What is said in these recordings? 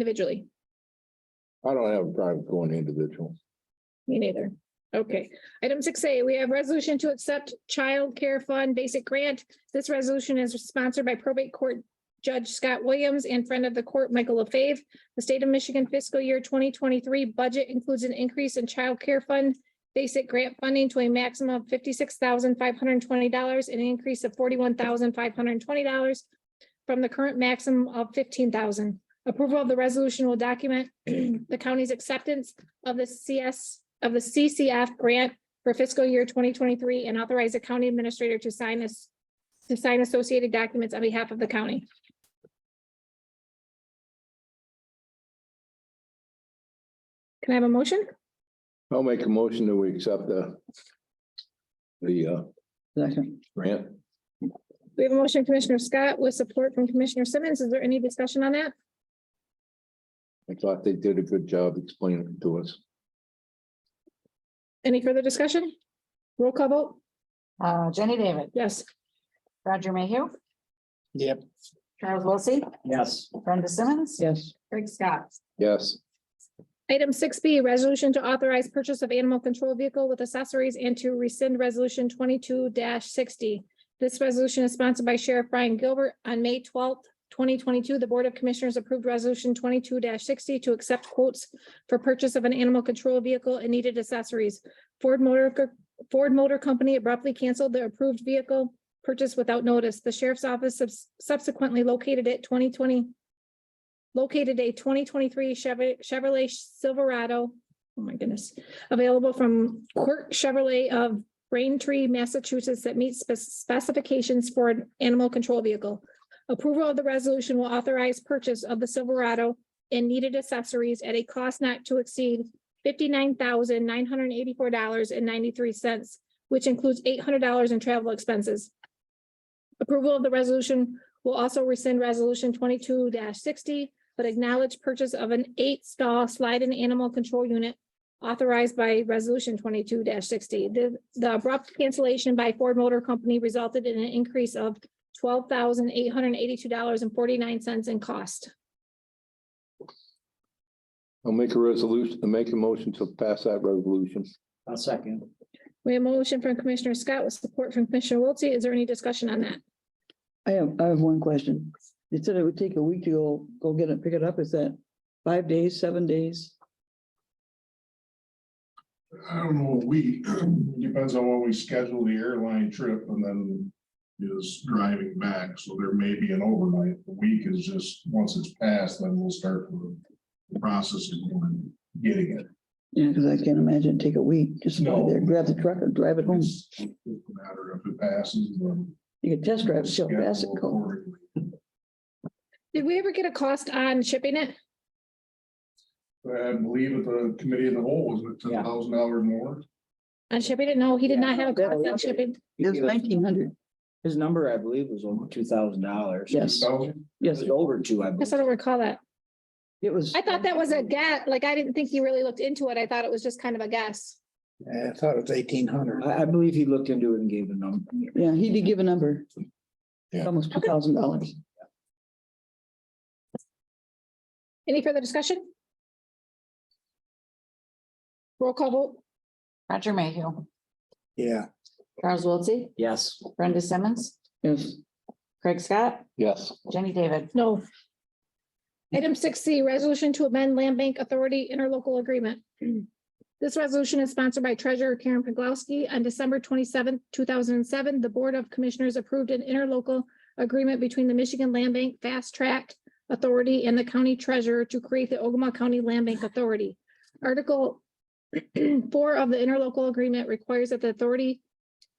individually? I don't have a problem going individual. Me neither. Okay, item six A, we have resolution to accept child care fund basic grant. This resolution is sponsored by probate court Judge Scott Williams and friend of the court, Michael LaFave. The state of Michigan fiscal year twenty twenty-three budget includes an increase in child care fund basic grant funding to a maximum of fifty-six thousand five hundred and twenty dollars, an increase of forty-one thousand five hundred and twenty dollars from the current maximum of fifteen thousand. Approval of the resolution will document the county's acceptance of the CS, of the CCF grant for fiscal year twenty twenty-three and authorize the county administrator to sign this, to sign associated documents on behalf of the county. Can I have a motion? I'll make a motion that we accept the the uh Second. grant. We have a motion Commissioner Scott with support from Commissioner Simmons. Is there any discussion on that? I thought they did a good job explaining it to us. Any further discussion? Roll call vote? Uh, Jenny David, Yes. Roger Mayhew, Yep. Charles Wilsey, Yes. Brenda Simmons. Yes. Craig Scott. Yes, Item six B, resolution to authorize purchase of animal control vehicle with accessories and to rescind resolution twenty-two sixty. This resolution is sponsored by Sheriff Brian Gilbert. On May twelfth, twenty twenty-two, the Board of Commissioners approved resolution twenty-two sixty to accept quotes for purchase of an animal control vehicle and needed accessories. Ford Motor, Co- Ford Motor Company abruptly canceled the approved vehicle purchase without notice. The Sheriff's Office subs- subsequently located it twenty twenty located a twenty twenty-three Chevy- Chevrolet Silverado, oh my goodness, available from Quirk Chevrolet of Braintree, Massachusetts that meets spec- specifications for an animal control vehicle. Approval of the resolution will authorize purchase of the Silverado and needed accessories at a cost not to exceed fifty-nine thousand nine hundred and eighty-four dollars and ninety-three cents, which includes eight hundred dollars in travel expenses. Approval of the resolution will also rescind resolution twenty-two sixty, but acknowledge purchase of an eight stall slide and animal control unit authorized by resolution twenty-two sixty. The, the abrupt cancellation by Ford Motor Company resulted in an increase of twelve thousand eight hundred and eighty-two dollars and forty-nine cents in cost. I'll make a resolution, make a motion to pass that resolution. I'll second. We have a motion from Commissioner Scott with support from Commissioner Wiltie. Is there any discussion on that? I have, I have one question. You said it would take a week to go, go get it, pick it up. Is that five days, seven days? I don't know, a week, depends on when we schedule the airline trip and then is driving back, so there may be an overnight. A week is just, once it's passed, then we'll start the process of going and getting it. Yeah, because I can't imagine it'd take a week. Just go No. there, grab the truck and drive it home. It's just a matter of if it passes, then. You could test drive, it, see how fast it schedule goes. accordingly. Did we ever get a cost on shipping it? I believe at the committee of the whole, was it ten Yeah. thousand dollars more? On shipping it? No, he did not have a cost on shipping. It was He gave us- nineteen hundred. His number, I believe, was over two thousand dollars. Yes, $2,000? It yes, was over two, I I believe. sort of recall that. it was. I thought that was a guess. Like, I didn't think he really looked into it. I thought it was just kind of a guess. I thought it was eighteen hundred. I, I believe he looked into it and gave the number. Yeah, he did give a number. Yeah. Almost two thousand dollars. Any further discussion? Roll call vote. Roger Mayhew, Yeah, Charles Wilsey, Yes, Brenda Simmons, Yes, Craig Scott, Yes, Jenny David. No. Item six C, resolution to amend land bank authority interlocal agreement. This resolution is sponsored by Treasurer Karen Pogowski. On December twenty-seventh, two thousand and seven, the Board of Commissioners approved an interlocal agreement between the Michigan Land Bank Fast Track Authority and the County Treasurer to create the Ogama County Land Bank Authority. Article four of the interlocal agreement requires that the authority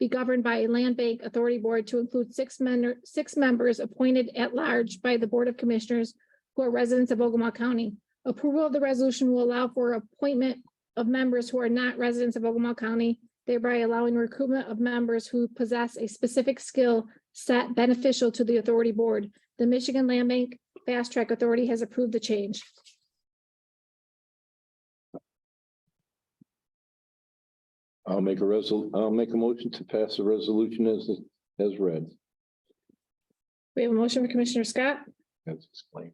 be governed by a land bank authority board to include six men, six members appointed at large by the Board of Commissioners who are residents of Ogama County. Approval of the resolution will allow for appointment of members who are not residents of Ogama County, thereby allowing recruitment of members who possess a specific skill set beneficial to the authority board. The Michigan Land Bank Fast Track Authority has approved the change. I'll make a resol, I'll make a motion to pass the resolution as as read. We have a motion for Commissioner Scott. As explained.